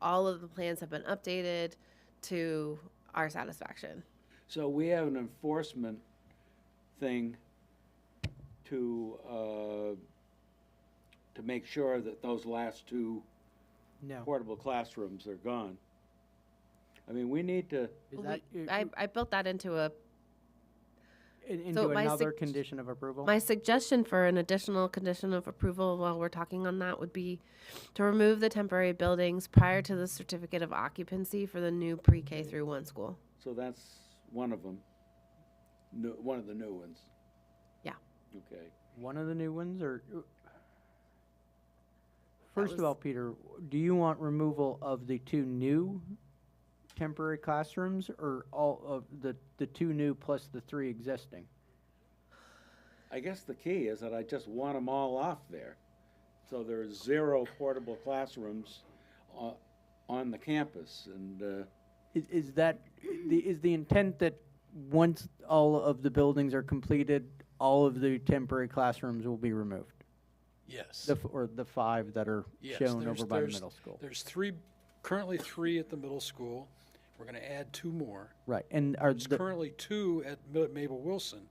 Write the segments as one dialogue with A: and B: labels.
A: all of the plans have been updated to our satisfaction.
B: So we have an enforcement thing to, uh, to make sure that those last two
C: No.
B: portable classrooms are gone. I mean, we need to,
C: Is
A: We-
C: that i-
A: I, I built that into a,
C: in-
A: so
C: into
A: my
C: another
A: sug-
C: condition of approval?
A: my suggestion for an additional condition of approval while we're talking on that would be to remove the temporary buildings prior to the certificate of occupancy for the new
C: Mm-hmm.
A: pre-K through one school.
B: so that's one of them, new, one of the new ones.
A: Yeah.
B: Okay.
C: One of the new ones, or? First
A: was-
C: of all, Peter, do you want removal of the two new temporary classrooms, or all of the, the two new plus the three existing?
B: I guess the key is that I just want them all off there. So there's zero portable classrooms o- on the campus and, uh,
C: Is, is that, the, is the intent that once all of the buildings are completed, all of the temporary classrooms will be removed?
D: Yes.
C: The, f- or the five that are
D: Yes,
C: shown
D: there's-
C: over by the
D: there's-
C: middle school?
D: There's three, currently three at the middle school. We're going to add two more.
C: Right, and are
D: There's
C: the,
D: currently two at Mi- Mabel Wilson.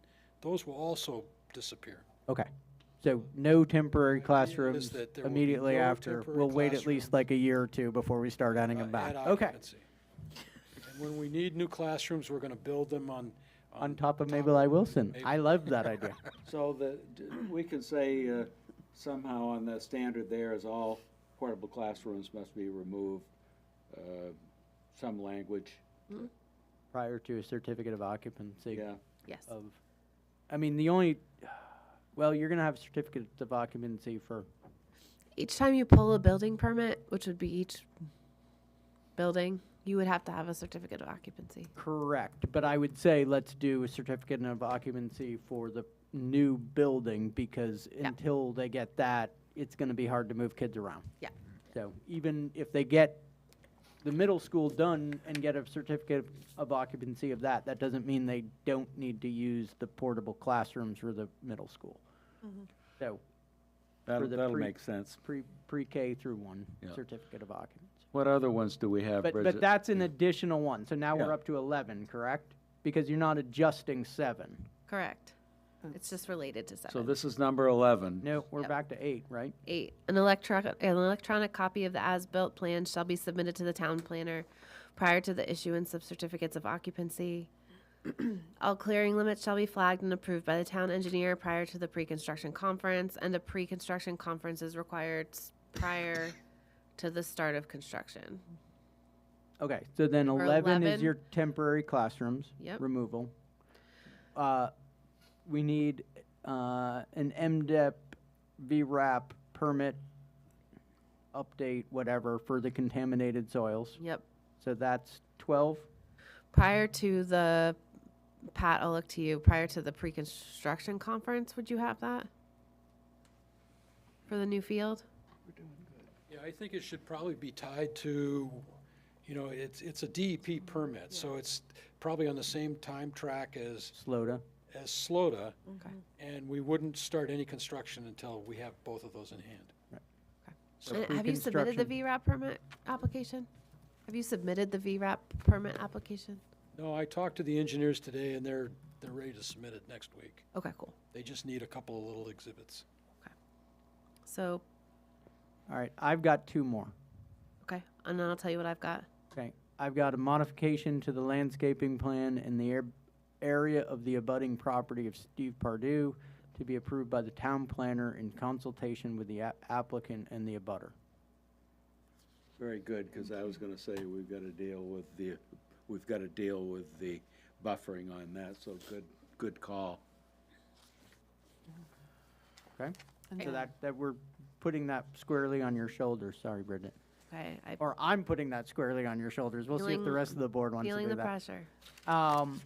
D: Those will also disappear.
C: okay. So no temporary
D: is
C: classrooms
D: that there will be
C: immediately
D: no
C: after.
D: temporary
C: We'll wait at least
D: classrooms.
C: like a year or two before we start adding
D: uh,
C: them back.
D: at
C: Okay,
D: occupancy. And when we need new classrooms, we're going to build them on.
C: on top of Mabel I. Wilson. I love that idea.
B: So the, d- we can say uh, somehow on the standard there is all portable classrooms must be removed, uh, some language,
C: Prior to a certificate of occupancy
B: yeah.
A: Yes.
C: of, I mean, the only, well, you're gonna have certificates of occupancy for,
A: Each time you pull a building permit, which would be each building, you would have to have a certificate of occupancy.
C: correct, but I would say let's do a certificate of occupancy for the new building because until they get that, it's gonna be hard to move kids around.
A: Yeah.
C: So even if they get the middle school done and get a certificate of occupancy of that, that doesn't mean they don't need to use the portable classrooms for the middle school. So
B: That'll,
C: the
B: that'll
C: pre-
B: make sense.
C: pre, pre-K through one
B: Yeah.
C: certificate of occupancy.
B: What other ones do we have,
C: But,
B: Bridget?
C: but that's an additional one, so now
B: Yeah.
C: we're up to eleven, correct? Because you're not adjusting seven.
A: Correct. It's just related to
B: So
A: seven.
B: this is number 11.
C: No, we're
A: Yep.
C: back to eight, right?
A: Eight, an electronic, an electronic copy of the as-built plan shall be submitted to the town planner prior to the issuance of certificates of occupancy. All clearing limits shall be flagged and approved by the town engineer prior to the pre-construction conference, and a pre-construction conference is required s- prior to the start of construction.
C: Okay, so then
A: For
C: eleven
A: 11.
C: is your temporary classrooms
A: Yep.
C: removal. Uh, we need, uh, an MDEP VRAP permit update, whatever, for the contaminated soils.
A: Yep,
C: So that's twelve?
A: prior to the, Pat, I'll look to you, prior to the pre-construction conference, would you have that? For the new field?
D: Yeah, I think it should probably be tied to, you know, it's, it's a DEP permit, so it's probably on the same time track as,
C: Slota.
D: as SLOTA.
A: Okay.
D: And we wouldn't start any construction until we have both of those in hand.
C: So
A: And have you submitted the
C: pre-construction-
A: VRAP permit application? Have you submitted the VRAP permit application?
D: No, I talked to the engineers today, and they're, they're ready to submit it next week.
A: Okay, cool.
D: They just need a couple of little exhibits.
A: So,
C: All right, I've got two more.
A: okay, and then I'll tell you what I've got.
C: Okay, I've got a modification to the landscaping plan in the air, area of the abutting property of Steve Pardue to be approved by the town planner in consultation with the a- applicant and the abutter.
B: Very good, because I was going to say we've got to deal with the, we've got to deal with the buffering on that, so good, good call.
C: Okay?
A: Okay.
C: So that, that we're putting that squarely on your shoulders, sorry Bridget.
A: Okay, I'm
C: Or I'm putting that squarely on your shoulders, we'll see if the
A: Feeling-
C: rest of the board wants to
A: feeling
C: do
A: the
C: that.
A: pressure.
C: Um,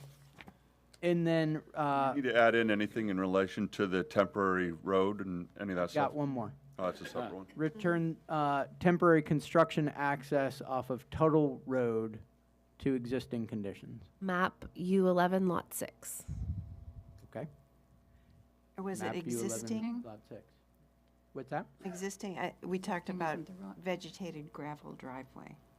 C: and then, uh,
E: Need to add in anything in relation to the temporary road and any of that stuff?
C: got one more.
E: Oh, that's a separate one.
C: return uh, temporary construction access off of Tuttle Road to existing conditions.
A: Map U eleven lot six.
C: Okay.
F: Or was it
C: Map U11,
F: existing?
C: Lot six. What's that?
F: Existing, I- we talked about vegetated gravel driveway.